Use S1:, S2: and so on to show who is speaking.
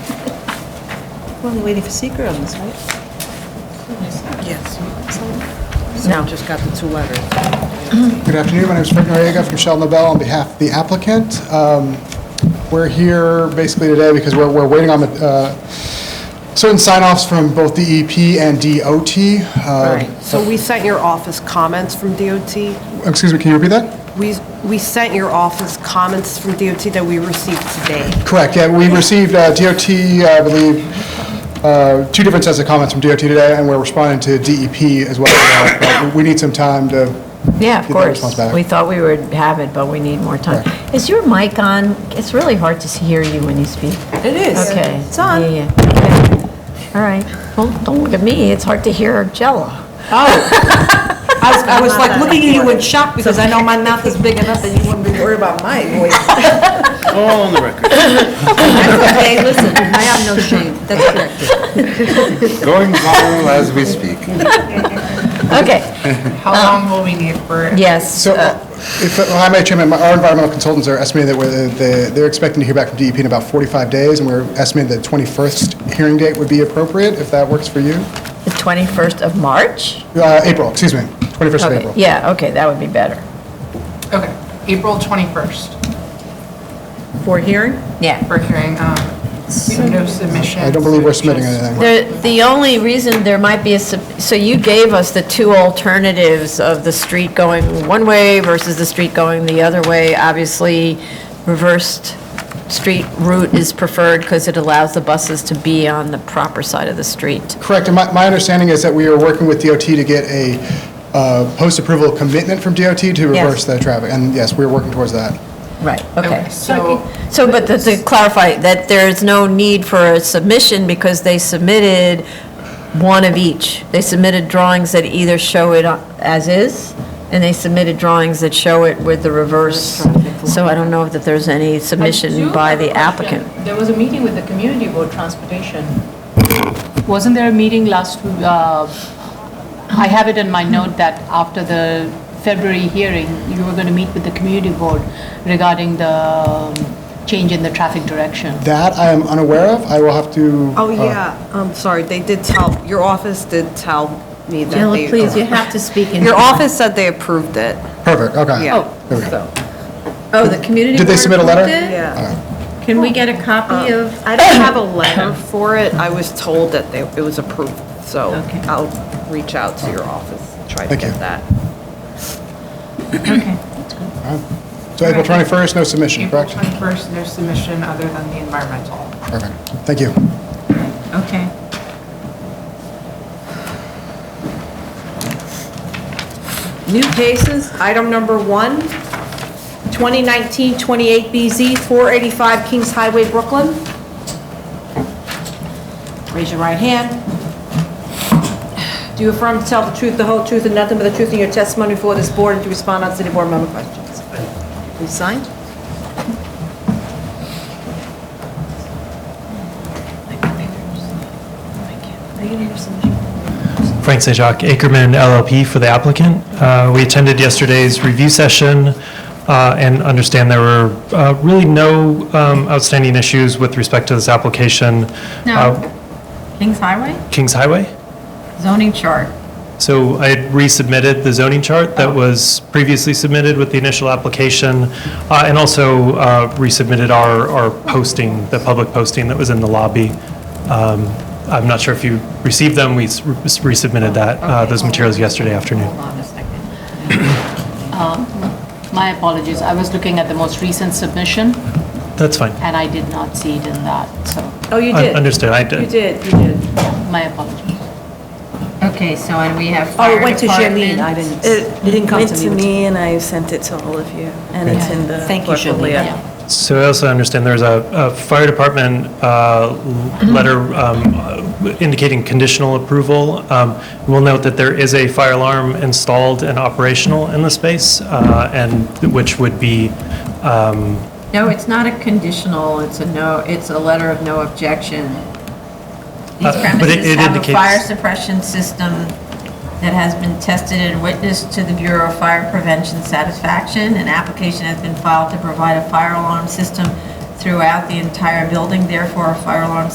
S1: Well, we're waiting for seeker on this, right?
S2: Yes.
S1: So-
S2: So just got the two letters.
S3: Good afternoon, my name is Frank Noriega from Shell Nobel on behalf of the applicant. Um, We're here basically today because we're, we're waiting on uh, certain sign-offs from both DEP and DOT.
S2: All
S3: Uh,
S2: right. So we sent your office comments from DOT.
S3: Excuse me, can you repeat that?
S2: We, we sent your office comments from DOT that we received today.
S3: Correct, yeah, we received uh, DOT, I believe, uh, two different sets of comments from DOT today, and we're responding to DEP as well. But We need some time to get
S4: Yeah,
S3: that
S4: of course.
S3: response back.
S4: We thought we would have it, but we need more time. Is your mic on? It's really hard to hear you when you speak.
S2: It is.
S4: Okay.
S1: It's on.
S4: Yeah, yeah. Okay. All right. Well, don't look at me. It's hard to hear Jella.
S1: I was, I was like looking at you in shock because I know my mouth is big enough that you wouldn't be worried about my voice.
S5: All on the record.
S1: Okay, listen, I have no shame, that's correct.
S5: Going viral as we speak.
S4: Okay.
S6: How
S4: Um.
S6: long will we need for it?
S4: Yes.
S3: So, uh, if, uh, I may, Chairman, our environmental consultants are estimating that we're- they- they're expecting to hear back from DEP in about 45 days, and we're estimating the 21st hearing date would be appropriate, if that works for you.
S4: The 21st of March?
S3: Uh, April, excuse me, 21st of
S4: Okay.
S3: April.
S4: Yeah, okay, that would be better.
S6: Okay, April 21st
S1: For hearing?
S4: Yeah.
S6: for hearing, um, no submission.
S3: I don't believe we're submitting anything.
S4: The, the only reason there might be a, sub- so you gave us the two alternatives of the street going one way versus the street going the other way. Obviously, reversed street route is preferred because it allows the buses to be on the proper side of the street.
S3: Correct, and my, my understanding is that we are working with DOT to get a uh, post-approval commitment from DOT to
S4: Yes.
S3: reverse the traffic, and yes, we're working towards that.
S4: Right,
S6: Okay,
S4: okay.
S6: so
S4: So, but to- to clarify, that there is no need for a submission because they submitted one of each. They submitted drawings that either show it as is, and they submitted drawings that show it with the reverse. So I don't know that there's any
S7: I do
S4: submission by
S7: have a
S4: the
S7: question.
S4: applicant.
S7: There was a meeting with the community board transportation. Wasn't there a meeting last, uh, I have it in my note that after the February hearing, you were going to meet with the community board regarding the um, change in the traffic direction.
S3: That I am unaware of, I will have to.
S2: Oh,
S3: uh,
S2: yeah, I'm sorry, they did tell, your office did tell me that they.
S4: to speak
S2: Your office said they approved it.
S3: Perfect, okay.
S2: Yeah.
S3: There we go.
S8: Oh, the community
S3: Did they
S8: board
S3: submit a letter?
S8: approved it?
S2: Yeah.
S8: Can we get a copy of,
S2: I don't have a letter for it, I was told that they, it was approved, so
S8: Okay.
S2: I'll reach out to your office, try to
S3: Thank you.
S2: get that.
S3: So April 21st, no submission,
S6: April
S3: correct?
S6: 21st, no submission other than the environmental.
S3: Perfect, thank you.
S8: okay.
S1: New cases, item number one, 2019-28BZ, 485 Kings Highway, Brooklyn. Raise your right hand. Do you affirm to tell the truth, the whole truth, and nothing but the truth in your testimony before this board and to respond on city board member questions? You signed?
S9: Frank St. Jacques, Ackerman LLP for the applicant. Uh, We attended yesterday's review session uh, and understand there were uh, really no um, outstanding issues with respect to this application. Uh,
S8: Kings Highway?
S9: Kings Highway?
S8: Zoning chart.
S9: So I had resubmitted the zoning chart that was previously submitted with the initial application, uh, and also uh, resubmitted our, our posting, the public posting that was in the lobby. Um, I'm not sure if you received them, we s- resubmitted that, uh, those materials yesterday afternoon.
S8: Hold on a second. Um,
S7: My apologies, I was looking at the most recent submission,
S9: That's fine.
S7: and I did not see it in that, so
S1: Oh, you
S9: Un-
S1: did?
S9: Understood, I
S1: You
S9: did.
S1: did, you did.
S7: my apologies.
S8: Okay, so and we have
S1: Oh,
S8: fire
S1: it went to Charlene, I
S8: department.
S1: didn't, it didn't come to me. which-
S10: and I sent it to all of you, and it's in the
S1: Thank you, Charlene.
S10: portfolio.
S9: So I also understand there's a, a fire department uh, l- letter um, indicating conditional approval. Um, We'll note that there is a fire alarm installed and operational in the space, uh, and which would be, um,
S8: No, it's not a conditional, it's a no, it's a letter of no objection. These
S9: Uh, but it-
S8: premises
S9: it
S8: have a
S9: indicates-
S8: fire suppression system that has been tested and witnessed to the Bureau of Fire Prevention satisfaction. An application has been filed to provide a fire alarm system throughout the entire building, therefore a fire alarm